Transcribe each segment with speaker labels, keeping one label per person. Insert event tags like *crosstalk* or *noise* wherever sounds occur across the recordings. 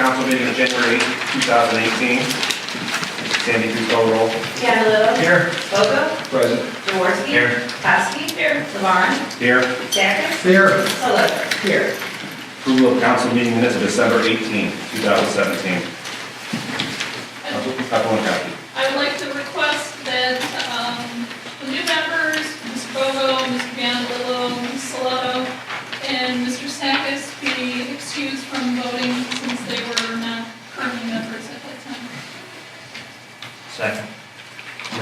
Speaker 1: uh, meeting of January 8, 2018. Sandy, please call the roll.
Speaker 2: Candelo.
Speaker 1: Here.
Speaker 2: Bogo.
Speaker 1: Present.
Speaker 2: Jaworski.
Speaker 1: Here.
Speaker 2: Kowski. Here. Levon.
Speaker 1: Here.
Speaker 2: Jacobs.
Speaker 1: Here.
Speaker 2: Solotra. Here.
Speaker 1: Approval of council meeting minutes of December 18, 2017. Council- Councilwoman Kowski.
Speaker 3: I would like to request that um, the new members, Ms. Bogo, Mr. Vandalillo, Ms. Saloto, and Mr. Sakis be excused from voting since they were not currently members at that time.
Speaker 1: Second.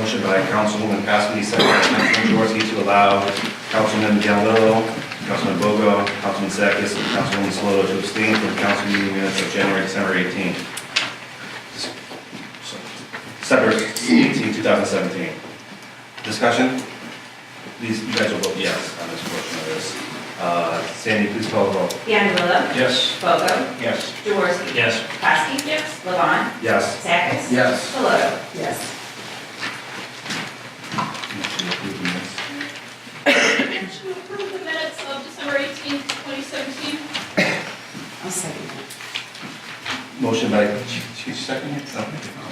Speaker 1: Motion by Councilwoman Kowski, second by Councilman Jaworski to allow Councilman Gallo, Councilman Bogo, Councilman Sakis, and Councilwoman Saloto to abstain from council meeting minutes of January, December 18. December 18, 2017. Discussion? These, you guys will vote yes on this portion of this. Uh, Sandy, please call the roll.
Speaker 2: Candelo.
Speaker 4: Yes.
Speaker 2: Bogo.
Speaker 4: Yes.
Speaker 2: Jaworski.
Speaker 4: Yes.
Speaker 2: Kowski. Yes. Levon.
Speaker 1: Yes.
Speaker 2: Jacobs.
Speaker 4: Yes.
Speaker 2: Solotra. Yes.
Speaker 1: Motion approved, minutes.
Speaker 3: To approve the minutes of December 18th, 2017.
Speaker 2: I'll second that.
Speaker 1: Motion by, she, she second it? No.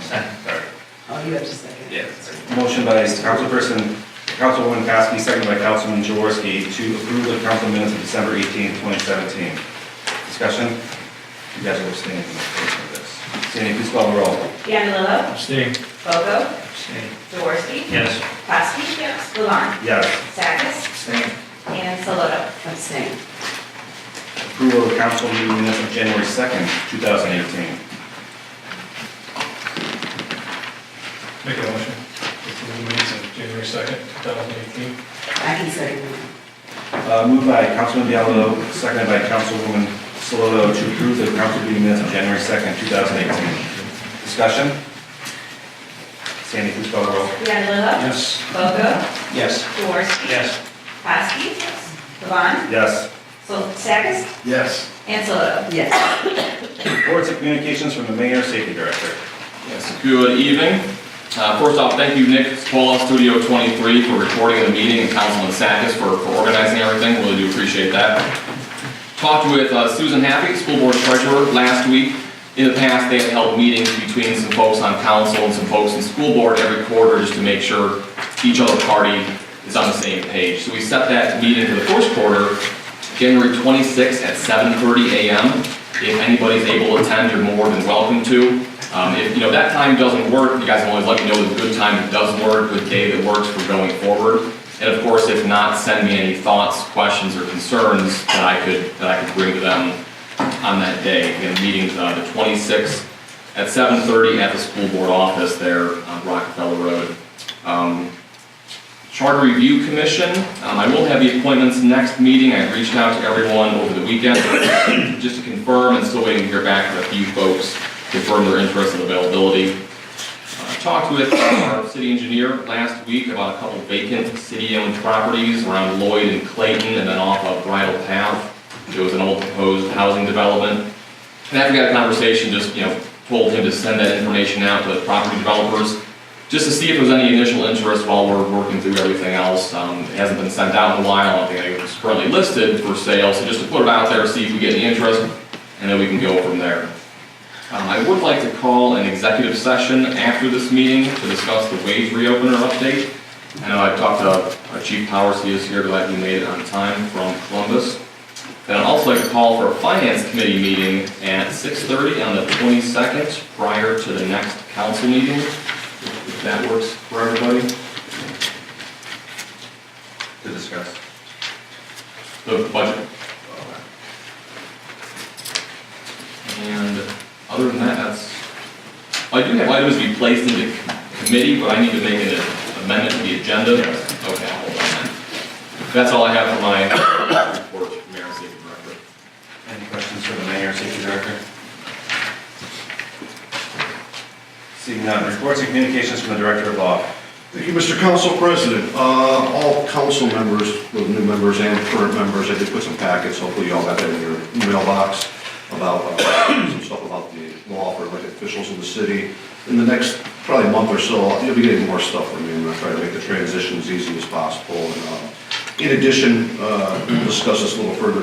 Speaker 1: Sorry.
Speaker 2: Oh, you have to second.
Speaker 1: Yes. Motion by Councilperson, Councilwoman Kowski, seconded by Councilman Jaworski to approve the council minutes of December 18, 2017. Discussion? You guys are abstaining from this portion of this. Sandy, please call the roll.
Speaker 2: Candelo.
Speaker 4: Abstain.
Speaker 2: Bogo.
Speaker 4: Abstain.
Speaker 2: Jaworski.
Speaker 4: Yes.
Speaker 2: Kowski. Yes. Levon.
Speaker 1: Yes.
Speaker 2: Jacobs.
Speaker 4: Abstain.
Speaker 2: And Solotra. Abstain.
Speaker 1: Approval of council meeting minutes of January 2nd, 2018.
Speaker 5: Make a motion. Approve the minutes of January 2nd, 2018.
Speaker 2: I can second that.
Speaker 1: Uh, Moved by Councilman Diallo, seconded by Councilwoman Saloto to approve the council meeting minutes of January 2nd, 2018. Discussion? Sandy, please call the roll.
Speaker 2: Candelo.
Speaker 4: Yes.
Speaker 2: Bogo.
Speaker 4: Yes.
Speaker 2: Jaworski.
Speaker 4: Yes.
Speaker 2: Kowski. Levon.
Speaker 1: Yes.
Speaker 2: So Sackus.
Speaker 4: Yes.
Speaker 2: And Solotra. Yes.
Speaker 1: Reports and communications from the mayor, safety director.
Speaker 6: Yes, good evening. Uh, First off, thank you, Nick Paul, Studio 23, for recording the meeting, and Councilman Sakis for for organizing everything, really do appreciate that. Talked with uh, Susan Happy, School Board Treasurer, last week. In the past, they have held meetings between some folks on council and some folks in school board every quarter, just to make sure each other party is on the same page. So we set that meeting for the first quarter, January 26th at 7:30 a.m. If anybody's able to attend, you're more than welcome to. Um, If, you know, that time doesn't work, you guys can always let me know the good time that does work, with day that works for going forward. And of course, if not, send me any thoughts, questions, or concerns that I could, that I could bring to them on that day. Again, meeting's uh, the 26th at 7:30 at the school board office there on Rockefeller Road. Um, Charter Review Commission, um, I will have the appointments next meeting. I reached out to everyone over the weekend *coughs* just to confirm, and still waiting to hear back from a few folks, confirm their interest and availability. Uh, Talked with our city engineer last week about a couple vacant city-owned properties around Lloyd and Clayton, and then off of Bridle Path. It was an old proposed housing development. And after we had a conversation, just, you know, told him to send that information out to the property developers, just to see if there was any initial interest while we're working through everything else. Um, It hasn't been sent out in a while, I don't think it was currently listed for sale, so just to put it out there, see if we get any interest, and then we can go from there. Um, I would like to call an executive session after this meeting to discuss the wage reopener update. I know I talked to our Chief Powers, he is here, glad he made it on time from Columbus. Then I'd also like to call for a finance committee meeting at 6:30 on the 22nd, prior to the next council meeting, if that works for everybody.
Speaker 1: To discuss.
Speaker 6: The budget. And other than that, that's, I do have items to be placed into committee, but I need to make an amendment to the agenda. Okay, I'll hold on then. That's all I have for my report, Mayor and City Director.
Speaker 1: Any questions for the mayor, safety director? Seeing none, reports and communications from the director of law.
Speaker 7: Thank you, Mr. Council President. Uh, All council members, both new members and current members, I did put some packets, hopefully you all got that in your mailbox, about uh, some stuff about the law for elected officials in the city. In the next probably month or so, you'll be getting more stuff from me, I'm gonna try to make the transition as easy as possible. And, uh, In addition, uh, we'll discuss this a little further